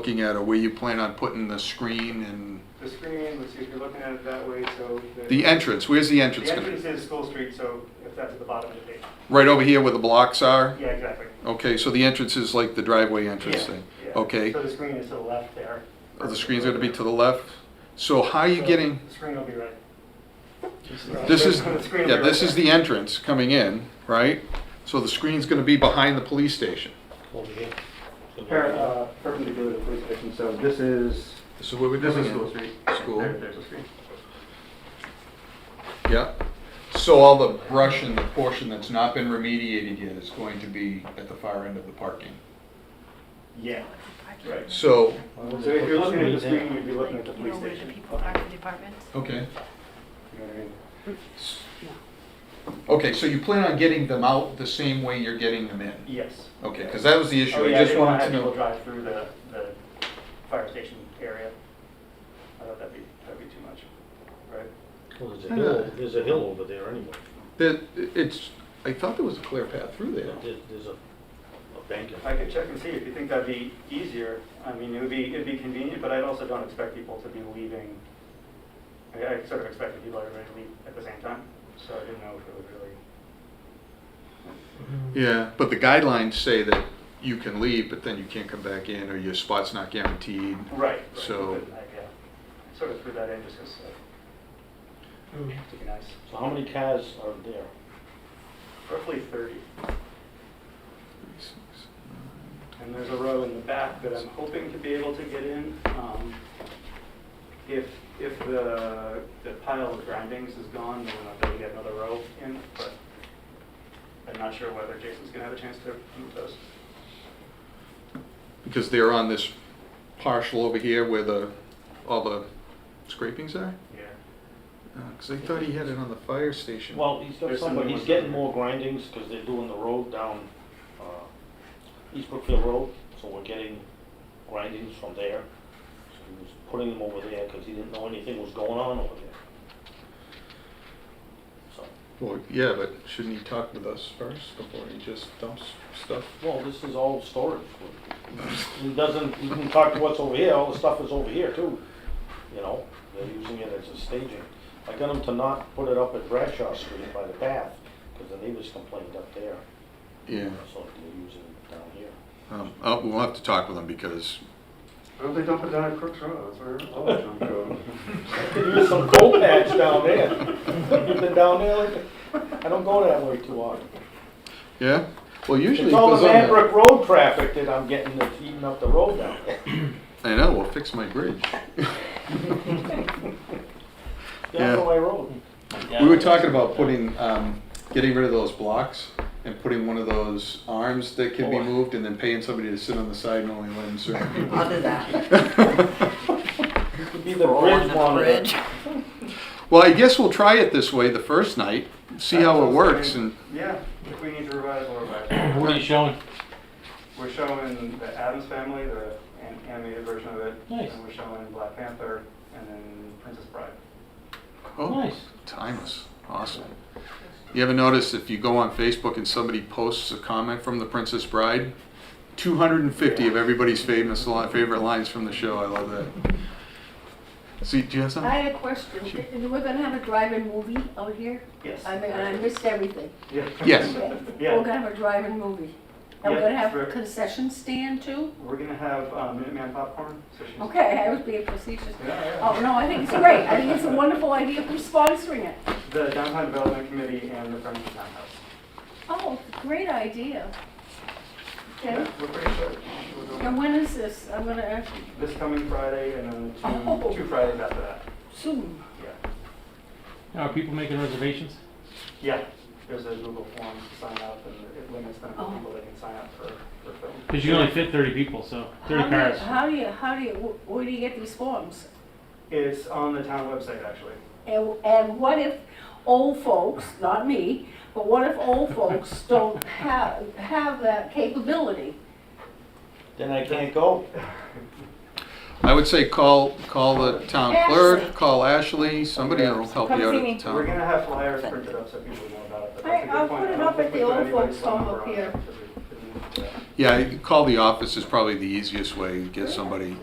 looking at, or where you plan on putting the screen and The screen, let's see if you're looking at it that way, so. the entrance, where's the entrance The gonna entrance be? is School Street, so if that's at the bottom of the page. Right over here where the blocks are? Yeah, exactly. Okay, so the entrance is like the driveway entrance Yeah, thing? yeah. Okay, So the screen is to the left there. Oh, the screen's gonna be to the left? So how are you So getting, The screen will be right. this is, The screen will yeah, be this right is there. the entrance coming in, right? So the screen's gonna be behind the police station. over here. So Per- there- uh, Perpendicular to the police station, so this is, This is where we're this doing is School it. Street. School. There- There's a screen. Yeah. So all the brush and the portion that's not been remediated yet is going to be at the far end of the parking. Yeah, right. So, So if you're looking at the screen, you'd be looking at the police station. You know, where the people are, the departments. okay. You know what I mean? Okay, so you plan on getting them out the same way you're getting them in? Yes. Okay, because that was the issue. Oh, I yeah, I just didn't want wanted to to have people know. drive through the, the fire station area. I thought that'd be, that'd be too much, right? Well, there's a hill, there's a hill over there anyway. That, it's, I thought there was a clear path through there. There's, there's a, a bank. I could check and see if you think that'd be easier. I mean, it would be, it'd be convenient, but I also don't expect people to be leaving. I, I sort of expected people everybody to leave at the same time, so I didn't know if it would really. Yeah, but the guidelines say that you can leave, but then you can't come back in, or your spot's not guaranteed. Right. right, So- but I- yeah. I Sort of threw that in just because, to be nice. So how many cars are there? Roughly thirty. And there's a row in the back that I'm hoping to be able to get in. Um, If, if the, the pile of grindings is gone, then I'll be able to get another row in, but I'm not sure whether Jason's gonna have a chance to move those. Because they're on this partial over here where the, all the scrapings are? Yeah. Because I thought he had it on the fire station. Well, he's got There's some, but somebody he's with- getting more grindings because they're doing the road down, uh, East Brookfield Road, so we're getting grindings from there. So he was putting them over there because he didn't know anything was going on over there. So, Well, yeah, but shouldn't he talk with us first before he just dumps stuff? well, this is all storage. He doesn't, he can talk to us over here, all the stuff is over here too, you know, they're using it as a staging. I got him to not put it up at Bradshaw Street by the path, because the neighbors complained up there, Yeah, so they're using it down here. um, uh, we'll have to talk with him because Well, they dump it down at Crooks Road, that's where all the junk goes. There's some coal patch down there. You've been down there lately? I don't go that way too often. Yeah, well, usually It's it all goes the on the- Manbrook Road traffic that I'm getting that's eating up the road down there. I know, we'll fix my bridge. Down Yeah. my road. We were talking about putting, um, getting rid of those blocks and putting one of those arms that can be Oh. moved and then paying somebody to sit on the side and only let them serve. I'll do that. Could be the bridge monitor. Well, I guess we'll try it this way the first night, see how it works and, Yeah, if we need to revise, we'll revise. What are you showing? We're showing the Adams Family, the an- animated version of it. Nice. And we're showing Black Panther and then Princess Bride. oh, Nice. timeless, awesome. You ever notice if you go on Facebook and somebody posts a comment from The Princess Bride? Two hundred and fifty of everybody's famous, li- favorite lines from the show, I love that. See, do you have something? I had a question. We're gonna have a drive-in movie out here? Yes. I mean, I missed everything. Yeah. Yes. Okay. Yeah. We're gonna have a drive-in movie. And we're Yeah, gonna have sure. a concession stand too? We're gonna have uh, Minuteman popcorn. So she's Okay, I was being facetious. Yeah, yeah. Oh, no, I think it's great. I think it's a wonderful idea. Who's sponsoring it? The Downtown Development Committee and the Friends of Townhouse. Oh, great idea. Okay, We're pretty sure. we're doing and when is this? I'm gonna ask you This coming Friday and then the Oh. two, two Fridays after that. soon. Yeah. Are people making reservations? Yeah. There's a Google form to sign up and it limits the number of Oh. people that can sign up for, for film. Because you can only fit 30 people, so 30 How do you- cars. How do you, how do you, wh- where do you get these forms? It's on the town website, actually. And, and what if old folks, not me, but what if old folks don't have, have that capability? Then I can't go. I would say call, call the town Ashley. clerk, call Ashley, somebody will help Come you out see at the me. We're town. gonna have flyers printed up so people know about it, but that's Hey, a good I'll point. put I it don't up think at we the put old anybody's folks' phone home number up on it here. because we didn't do that. Yeah, call the office is probably the easiest way to get somebody